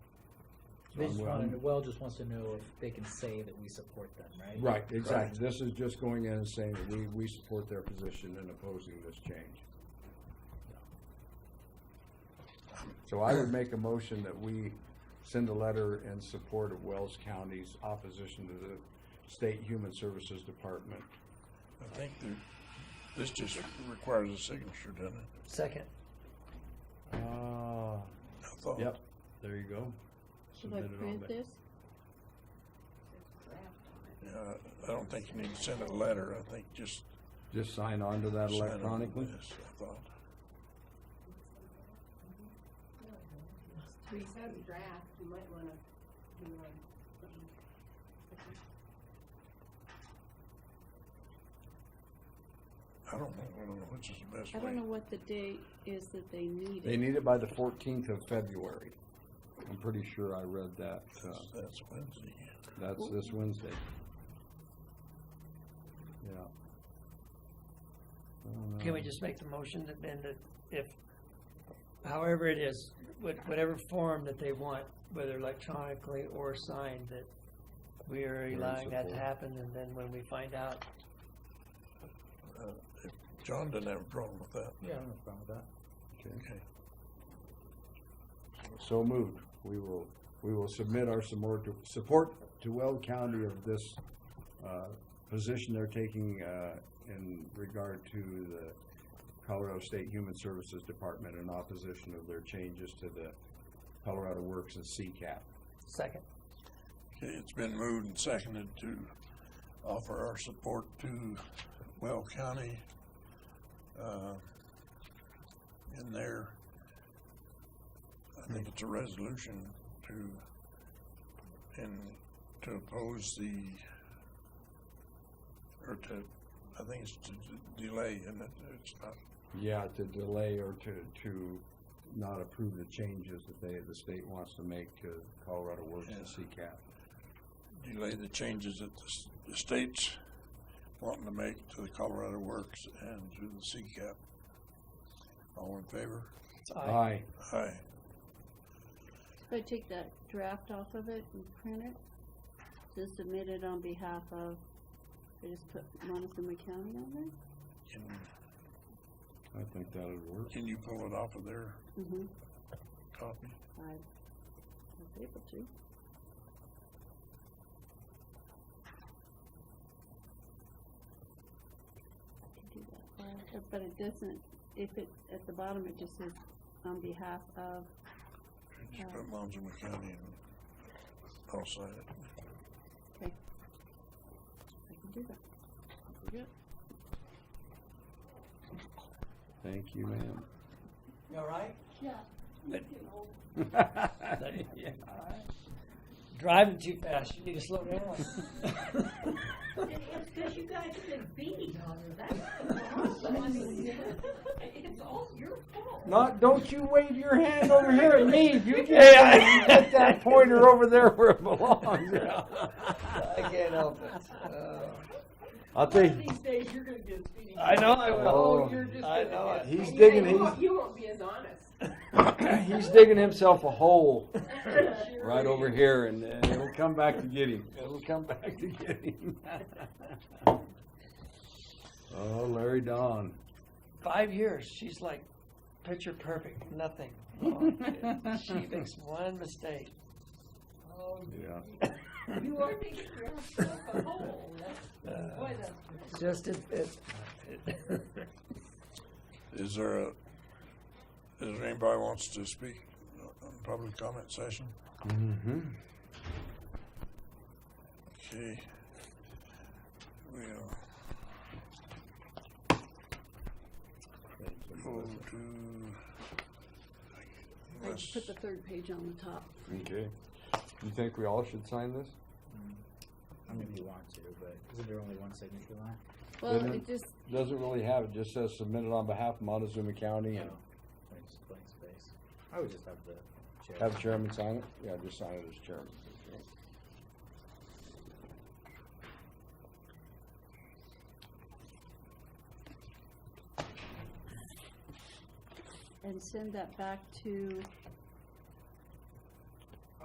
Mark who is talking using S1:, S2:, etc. S1: They just
S2: I'm-
S1: wanted,
S2: I'm-
S1: well, just wants to know if they can say that we support them, right?
S2: Right, exactly. This is just going in and saying that we, we support their position in opposing this change. So I would make a motion that we send a letter in support of Wells County's opposition to the State Human Services Department.
S3: I think that this just requires a signature, doesn't it?
S1: Second,
S2: Ah,
S3: I thought.
S2: yep, there you go.
S4: Should I
S2: Submit it on
S4: print
S2: the-
S4: this?
S3: Yeah, I don't think you need to send a letter. I think just.
S2: Just sign on to that
S3: sign it on
S2: electronically?
S3: this, I thought.
S5: We have a draft, you might wanna do like something.
S3: I don't know, I don't know which is the best
S4: I don't know
S3: way.
S4: what the date is that they need
S2: They
S4: it.
S2: need it by the fourteenth of February. I'm pretty sure I read that, uh,
S3: That's- That's Wednesday.
S2: That's this Wednesday. Yeah. Uh,
S6: Can we just make the motion that then that if, however it is, what- whatever form that they want, whether electronically or signed, that we are
S2: in
S6: allowing that to
S2: support.
S6: happen, and then when we find out,
S3: John didn't have a problem with that.
S1: yeah, I don't have a problem with that.
S3: Okay.
S2: So moved. We will, we will submit our support to, support to Weld County of this, uh, position they're taking, uh, in regard to the Colorado State Human Services Department in opposition of their changes to the Colorado Works and CCAP.
S6: second,
S3: Okay, it's been moved and seconded to offer our support to Well County, uh, in their, I think it's a resolution to, and to oppose the, or to, I think it's to d- delay, and it's not,
S2: Yeah, to delay or to, to not approve the changes that they, the state wants to make to Colorado Works and CCAP.
S3: delay the changes that the s- the state's wanting to make to the Colorado Works and to the CCAP. All in favor?
S6: I,
S2: Aye,
S3: Aye.
S4: Should I take that draft off of it and print it? Just submit it on behalf of, I just put Montezuma County on there?
S3: Can,
S2: I think that would work.
S3: can you pull it off of their
S4: Mm-hmm.
S3: copy?
S4: I was able to. I could do that, uh, But it doesn't, if it, at the bottom, it just says on behalf of,
S3: Just put Monzuma County and I'll sign it.
S4: I can do that.
S2: Thank you, ma'am.
S6: You all right?
S2: Yeah.
S6: Driving too fast, you need to slow down.
S5: It's because you guys have been beating on her, that's the problem. I mean, It's all your fault.
S2: Not, don't you wave your hand over here at me, you just put that pointer over there where it belongs.
S6: I can't help it.
S2: I'll tell you,
S5: These days, you're gonna get speeding.
S6: I know I
S2: Oh,
S6: will.
S2: you're
S5: just
S6: I
S5: gonna
S6: know
S5: get-
S6: it.
S2: he's
S5: You-
S2: digging,
S5: you
S2: he's,
S5: won't- You won't be as honest.
S2: he's digging himself a hole
S5: Sure
S2: right over
S5: is.
S2: here and uh, it'll come back to get him. It'll come back to get him. Oh, Larry Don.
S6: Five years, she's like picture perfect, nothing. Oh, She makes one mistake.
S5: Oh,
S2: Yeah.
S5: You are making yourself a hole,
S2: Uh,
S5: that's, boy, that's.
S6: Just if, if,
S3: Is there a, is there anybody wants to speak on public comment session?
S2: Mm-hmm.
S3: Okay. We'll go to.
S4: I
S3: unless-
S4: put the third page on the top.
S2: Okay. You think we all should sign this?
S1: I mean, if you want to, but isn't there only one signature line?
S4: Well,
S2: Doesn't-
S4: it just,
S2: Doesn't really have, it just says submitted on behalf of Montezuma County
S1: There's
S2: and
S1: Oh, just blank space. I would just have the chair.
S2: have chairman sign it? Yeah, just sign it as chairman.
S4: and send that back to